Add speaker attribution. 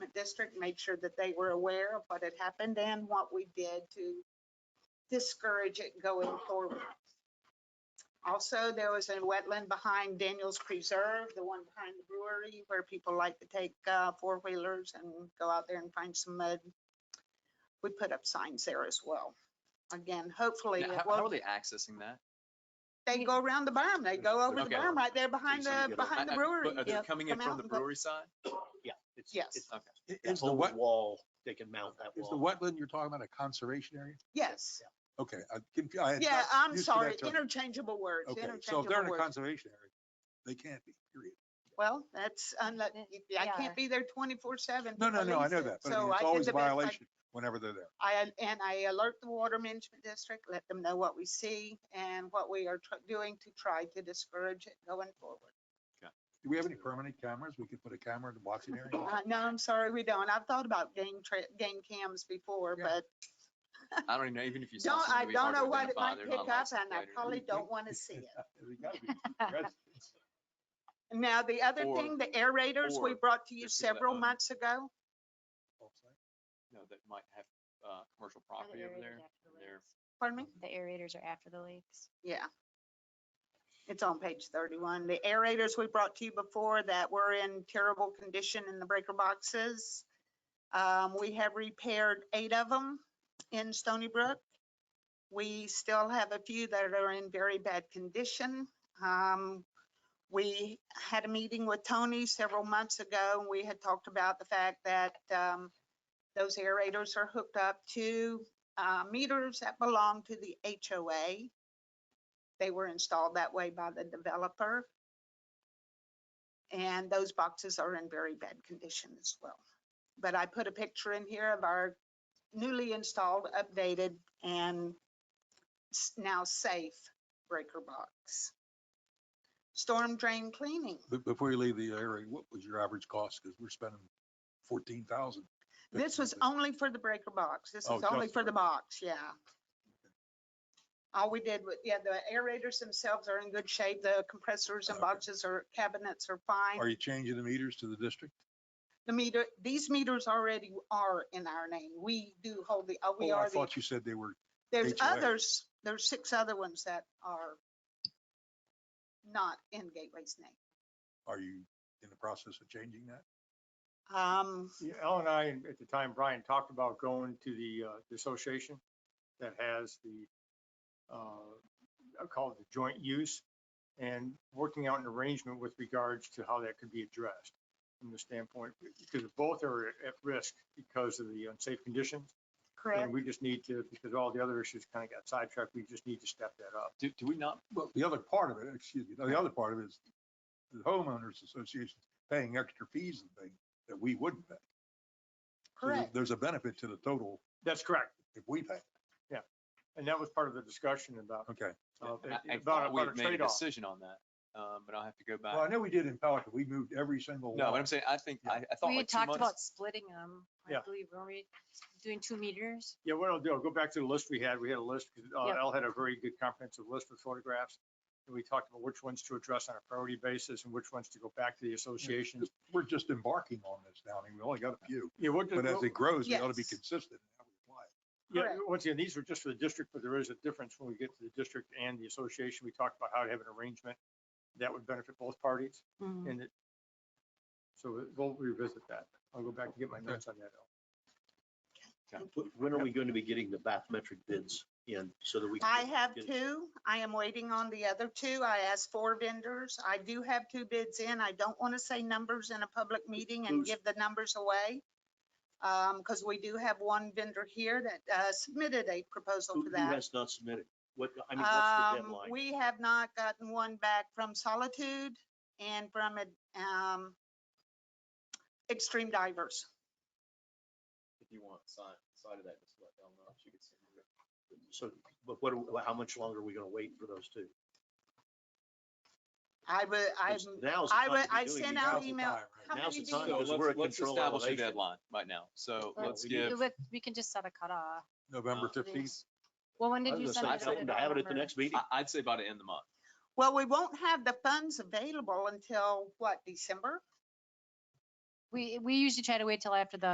Speaker 1: district, made sure that they were aware of what had happened and what we did to discourage it going forward. Also, there was a wetland behind Daniels Preserve, the one behind the brewery, where people like to take uh, four-wheelers and go out there and find some mud. We put up signs there as well. Again, hopefully,
Speaker 2: Now,
Speaker 1: it
Speaker 2: How how are
Speaker 1: won't-
Speaker 2: they accessing that?
Speaker 1: they go around the berm, they go over the
Speaker 2: Okay.
Speaker 1: berm right there behind
Speaker 3: Something
Speaker 1: the,
Speaker 3: good.
Speaker 1: behind
Speaker 2: I-
Speaker 1: the
Speaker 2: I-
Speaker 1: brewery.
Speaker 2: but uh, Are they
Speaker 1: Yep,
Speaker 2: coming in
Speaker 1: come out
Speaker 2: from the
Speaker 1: and go-
Speaker 2: brewery side?
Speaker 3: Yeah. it's-
Speaker 1: Yes.
Speaker 3: it's
Speaker 2: Okay.
Speaker 3: that
Speaker 4: Is the
Speaker 3: whole
Speaker 4: wet,
Speaker 3: Wall, they can mount that
Speaker 4: is the
Speaker 3: wall.
Speaker 4: wetland you're talking about a conservation area?
Speaker 1: Yes,
Speaker 4: Okay, I, conf- I. had
Speaker 1: yeah,
Speaker 4: not
Speaker 1: I'm
Speaker 4: used to that
Speaker 1: sorry,
Speaker 4: term.
Speaker 1: interchangeable words,
Speaker 4: Okay, so if they're in
Speaker 1: interchangeable
Speaker 4: a
Speaker 1: words.
Speaker 4: conservation area, they can't be, period.
Speaker 1: Well, that's, unless, I
Speaker 5: Yeah.
Speaker 1: can't be there twenty-four seven.
Speaker 4: No, no, no, I
Speaker 1: police
Speaker 4: know
Speaker 1: it.
Speaker 4: that, but I
Speaker 1: So
Speaker 4: mean, it's
Speaker 1: did
Speaker 4: always
Speaker 1: the
Speaker 4: a
Speaker 1: best I
Speaker 4: violation whenever they're there.
Speaker 1: I, and I alert the water management district, let them know what we see and what we are tr- doing to try to discourage it going forward.
Speaker 4: Do we have any permanent cameras? We could put a camera in the watching area?
Speaker 1: Uh, No, I'm sorry, we don't. I've thought about game tra, game cams before,
Speaker 4: Yeah.
Speaker 1: but
Speaker 2: I don't even know, even if you saw
Speaker 1: don't, I
Speaker 2: something.
Speaker 1: don't know what it might pick
Speaker 2: oh,
Speaker 1: up and I probably
Speaker 4: We-
Speaker 1: don't want to see it.
Speaker 4: There's gotta be residents.
Speaker 1: Now, the other
Speaker 2: Or-
Speaker 1: thing, the aerators we
Speaker 2: or
Speaker 1: brought to you
Speaker 2: there's people that
Speaker 1: several
Speaker 2: own-
Speaker 1: months ago,
Speaker 2: No, that might have, uh, commercial property over there. They're
Speaker 1: pardon me?
Speaker 5: The aerators are after the lakes.
Speaker 1: Yeah. It's on page thirty-one. The aerators we brought to you before that were in terrible condition in the breaker boxes. Um, we have repaired eight of them in Stony Brook. We still have a few that are in very bad condition. Um, we had a meeting with Tony several months ago and we had talked about the fact that, um, those aerators are hooked up to, uh, meters that belong to the HOA they were installed that way by the developer. And those boxes are in very bad condition as well. But I put a picture in here of our newly installed, updated, and s- now safe breaker box. Storm drain cleaning.
Speaker 4: Be- Before you leave the area, what was your average cost? Because we're spending fourteen thousand.
Speaker 1: This was only for the breaker box. This
Speaker 4: Oh,
Speaker 1: is only
Speaker 4: just
Speaker 1: for the box, yeah. All we did with, yeah, the aerators themselves are in good shape. The compressors and
Speaker 4: Okay.
Speaker 1: boxes or cabinets are fine.
Speaker 4: Are you changing the meters to the district?
Speaker 1: the meter, these meters already are in our name. We do hold the, uh, we
Speaker 4: Oh, I
Speaker 1: are the,
Speaker 4: thought you said they were,
Speaker 1: there's
Speaker 4: HOA.
Speaker 1: others, there's six other ones that are not in Gateway's name.
Speaker 4: are you in the process of changing that?
Speaker 1: Um,
Speaker 6: Yeah, Al and I, and at the time, Brian talked about going to the, uh, the association that has the, uh, I call it the joint use and working out an arrangement with regards to how that could be addressed from the standpoint, because both are at risk because of the unsafe conditions. And
Speaker 1: correct,
Speaker 6: we just need to, because all the other issues kind of got sidetracked, we just need to step that up.
Speaker 2: Do, do we not,
Speaker 4: Well, the other part of it, excuse me, the other part of it is the homeowners association paying extra fees and things that we wouldn't pay. So there-
Speaker 1: correct.
Speaker 4: There's a benefit to the total
Speaker 6: That's correct.
Speaker 4: if we pay.
Speaker 6: And that was part of the discussion about,
Speaker 4: Okay.
Speaker 6: uh,
Speaker 2: I- I
Speaker 6: about
Speaker 2: thought we
Speaker 6: about a
Speaker 2: had made a
Speaker 6: trade-off.
Speaker 2: decision on that, um, but I'll have to go
Speaker 4: Well, I
Speaker 2: back.
Speaker 4: know we did in Pelican. We moved every single.
Speaker 2: No,
Speaker 4: one.
Speaker 2: but I'm saying, I think, I, I thought
Speaker 5: We
Speaker 2: like
Speaker 5: had
Speaker 2: two
Speaker 5: talked about
Speaker 2: months.
Speaker 5: splitting them. I
Speaker 6: Yeah.
Speaker 5: believe, were we doing two meters?
Speaker 6: Yeah, what I'll do, I'll go back to the list we had. We had a list, 'cause, uh,
Speaker 5: Yep.
Speaker 6: Al had a very good comprehensive list with photographs. And we talked about which ones to address on a priority basis and which ones to go back to the associations.
Speaker 4: We're just embarking on this now. I mean, we only got a few,
Speaker 6: Yeah, what,
Speaker 4: but as it
Speaker 6: what-
Speaker 4: grows, we ought to be
Speaker 1: Yes.
Speaker 4: consistent. in how we apply it.
Speaker 6: yeah,
Speaker 1: correct.
Speaker 6: once again, these were just for the district, but there is a difference when we get to the district and the association. We talked about how to have an arrangement that would benefit both parties
Speaker 3: Mm-hmm.
Speaker 5: Mhm.
Speaker 6: and it. So we'll revisit that. I'll go back and get my
Speaker 4: Okay.
Speaker 6: notes on that. Al.
Speaker 3: Wh- When are we going to be getting the bathymetric bids in so that we? can
Speaker 1: I
Speaker 3: get-
Speaker 1: have
Speaker 3: get-
Speaker 1: two. I am waiting on the other two. I asked four vendors. I do have two bids in. I don't want to say numbers in a public meeting and
Speaker 3: Who's-
Speaker 1: give the numbers away. Um, because we do have one vendor here that uh, submitted a proposal
Speaker 3: Who
Speaker 1: for
Speaker 3: who
Speaker 1: that.
Speaker 3: has not submitted? What, I mean, what's the
Speaker 1: Um,
Speaker 3: deadline?
Speaker 1: We have not gotten one back from Solitude and from um, Extreme Divers.
Speaker 7: if you want, side, side of that, just let them know, she could send you.
Speaker 3: So, but what, are- how much longer are we going to wait for those two?
Speaker 1: I would, I,
Speaker 3: 'Cause now's the
Speaker 1: I
Speaker 3: time
Speaker 1: would-
Speaker 3: to be
Speaker 1: I
Speaker 3: doing
Speaker 1: sent
Speaker 3: these.
Speaker 1: out
Speaker 4: Now's the
Speaker 1: email-
Speaker 4: time, right?
Speaker 1: how
Speaker 3: Now's
Speaker 1: many
Speaker 3: the time,
Speaker 1: do
Speaker 2: So
Speaker 1: you-
Speaker 3: because
Speaker 2: let's-
Speaker 3: we're at
Speaker 2: let's
Speaker 3: control
Speaker 2: establish a
Speaker 3: elevation.
Speaker 2: deadline right now. So
Speaker 3: Yeah,
Speaker 2: let's
Speaker 3: we need
Speaker 2: give.
Speaker 5: Let- We can just set a cutoff.
Speaker 4: November
Speaker 2: Uh,
Speaker 4: fifteenth.
Speaker 5: Well, when
Speaker 3: I
Speaker 5: did
Speaker 3: was
Speaker 5: you
Speaker 3: gonna
Speaker 5: send
Speaker 3: say,
Speaker 5: it? I
Speaker 3: something to
Speaker 5: don't
Speaker 3: have it at the
Speaker 5: remember.
Speaker 3: next meeting.
Speaker 2: I, I'd say by the end of the month.
Speaker 1: Well, we won't have the funds available until, what, December?
Speaker 5: We, we usually try to wait till after the